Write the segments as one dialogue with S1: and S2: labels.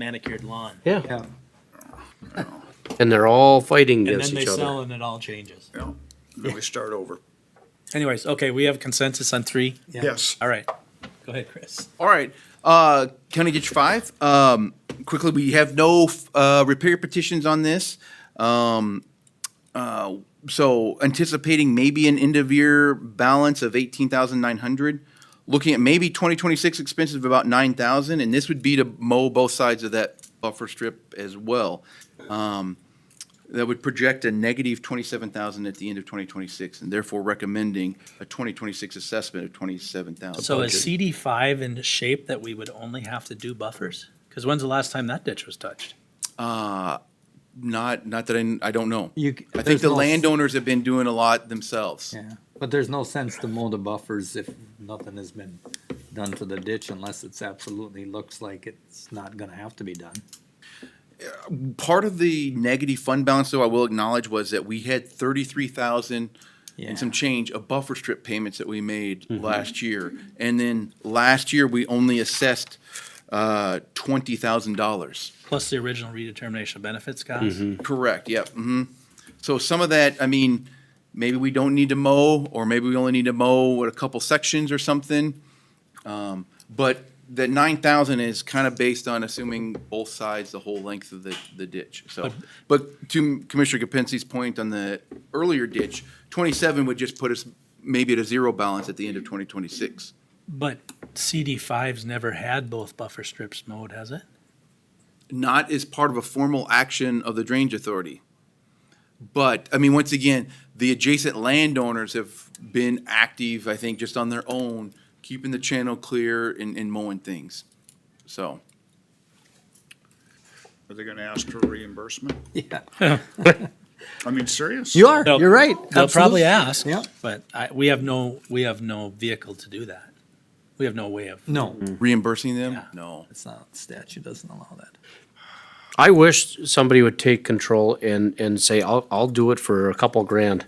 S1: manicured lawn.
S2: Yeah,
S3: Yeah,
S2: and they're all fighting
S1: And
S2: against
S1: then they
S2: each
S1: sell
S2: other.
S1: and it all changes.
S4: Yeah. Then we start over.
S1: Anyways, okay, we have consensus on three.
S4: Yes.
S1: All right. Go ahead, Chris.
S5: All right. Uh, can I get you five? Um, quickly, we have no uh, repair petitions on this. Um, uh, so anticipating maybe an end of year balance of eighteen thousand nine hundred. Looking at maybe twenty twenty six expenses of about nine thousand, and this would be to mow both sides of that buffer strip as well. Um, that would project a negative twenty seven thousand at the end of twenty twenty six, and therefore recommending a twenty twenty six assessment of twenty seven thousand.
S1: So is CD five in shape that we would only have to do buffers? Because when's the last time that ditch was touched?
S5: Uh, not, not that I, I don't know.
S3: You-
S5: I think
S3: there's
S5: the
S3: no-
S5: landowners have been doing a lot themselves.
S3: yeah, but there's no sense to mow the buffers if nothing has been done to the ditch unless it's absolutely looks like it's not gonna have to be done.
S5: Part of the negative fund balance, though, I will acknowledge, was that we had thirty-three thousand
S3: Yeah, Mm-hmm.
S5: and some change of buffer strip payments that we made last year. And then last year, we only assessed, uh, twenty thousand dollars.
S1: Plus the original redetermination of benefits costs?
S2: Mm-hmm.
S5: Correct, yep, hmm So some of that, I mean, maybe we don't need to mow, or maybe we only need to mow what, a couple sections or something. Um, but that nine thousand is kind of based on assuming both sides, the whole length of the, the ditch, so. But to Commissioner Kapinski's point on the earlier ditch, twenty-seven would just put us maybe at a zero balance at the end of twenty twenty-six.
S1: But CD five's never had both buffer strips mowed, has it?
S5: not as part of a formal action of the drainage authority. But, I mean, once again, the adjacent landowners have been active, I think, just on their own, keeping the channel clear and, and mowing things. So,
S4: Are they gonna ask for reimbursement?
S3: yeah,
S4: I mean, serious?
S3: you are,
S1: They'll-
S3: you're right.
S1: They'll probably
S3: absolutely.
S1: ask,
S3: Yeah.
S1: but I, we have no, we have no vehicle to do that. We have no way of,
S3: No,
S5: Mm-hmm. reimbursing them?
S1: Yeah.
S5: No.
S3: it's not, statute doesn't allow that.
S2: I wish somebody would take control and, and say, I'll, I'll do it for a couple grand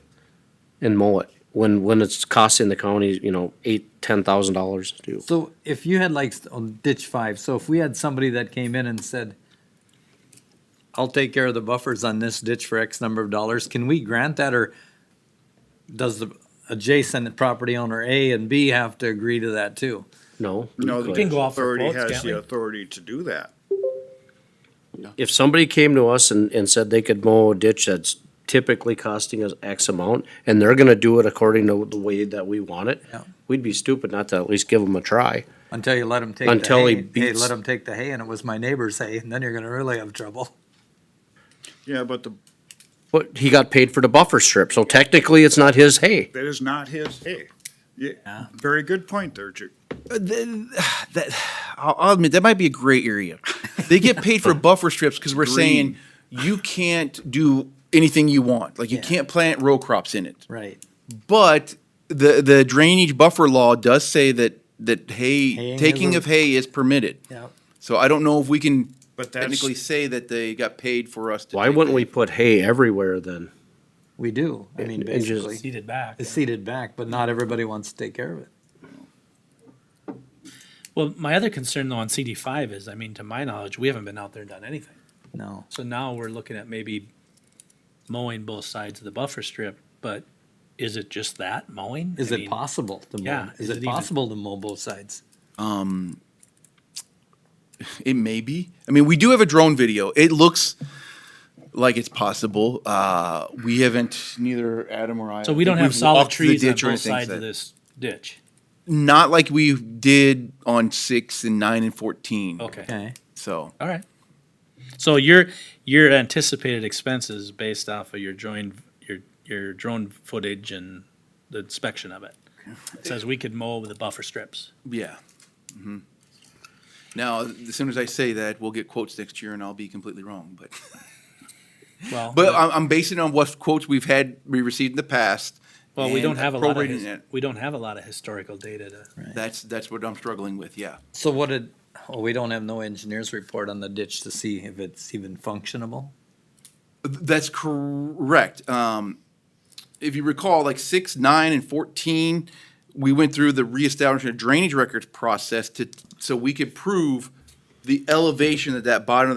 S2: and mow it. When, when it's costing the county, you know, eight, ten thousand dollars to do.
S3: So if you had like st- on ditch five, so if we had somebody that came in and said, I'll take care of the buffers on this ditch for X number of dollars, can we grant that or does the adjacent property owner A and B have to agree to that too?
S2: No?
S4: No, the
S2: Like,
S1: can go off for
S4: authority
S1: quotes,
S4: has
S1: can't
S4: the
S1: we?
S4: authority to do that.
S2: If somebody came to us and, and said they could mow a ditch that's typically costing us X amount, and they're gonna do it according to the way that we want it,
S3: Yeah.
S2: we'd be stupid not to at least give them a try.
S3: Until you let them take the hay.
S2: Until he
S3: Hey,
S2: beats-
S3: let them take the hay and it was my neighbor's hay, and then you're gonna really have trouble.
S4: Yeah, but the,
S2: But he got paid for the buffer strip, so technically it's not his hay.
S4: that is not his, hey, yeah, very good point there, Ju.
S5: Uh, I'll, I'll admit, that might be a gray area. They get paid for buffer strips because we're saying you can't do anything you want. Like, you
S3: Yeah.
S5: can't plant row crops in it.
S3: Right.
S5: But the the drainage buffer law does say that that hay
S3: Haying is
S5: taking
S3: a-
S5: of hay is permitted.
S3: Yeah.
S5: So I don't know if we can
S4: But that's-
S5: technically say that they got paid for us. To
S2: Why
S5: take
S2: wouldn't
S5: the-
S2: we put hay everywhere then?
S3: We do. I mean,
S2: And- and just-
S3: basically,
S1: seated back.
S3: it's seated back, but not everybody wants to take care of it.
S1: Well, my other concern though on CD five is, I mean, to my knowledge, we haven't been out there and done anything.
S3: No.
S1: So now we're looking at maybe mowing both sides of the buffer strip, but is it just that mowing?
S3: Is
S1: I
S3: it
S1: mean,
S3: possible to mow?
S1: yeah,
S3: Is
S1: is it
S3: it
S1: even-
S3: possible to mow both sides?
S5: Um, it may be. I mean, we do have a drone video. It looks like it's possible. Uh, we haven't. Neither Adam or I.
S1: So we don't
S5: we've
S1: have solid
S5: walked the
S1: trees on
S5: ditch or
S1: both
S5: anything,
S1: sides
S5: so-
S1: of this ditch.
S5: Not like we did on six and nine and fourteen.
S1: Okay,
S3: Okay.
S5: So
S1: all right. So your, your anticipated expenses based off of your joined, your, your drone footage and the inspection of it. It Says we could mow with the buffer strips.
S5: Yeah. Mhm. Now, as soon as I say that, we'll get quotes next year and I'll be completely wrong, but,
S1: Well,
S5: but I'm, I'm basing it on what quotes we've had, we received in the past.
S1: well, we
S5: and
S1: don't have a lot of,
S5: prorating
S1: his-
S5: it.
S1: we don't have a lot of historical data to.
S5: That's, that's what I'm struggling with, yeah.
S3: So what did, oh, we don't have no engineer's report on the ditch to see if it's even functionable?
S5: That's correct. Um, if you recall, like six, nine, and fourteen, we went through the reestablishment of drainage records process to, so we could prove the elevation that that bottom of that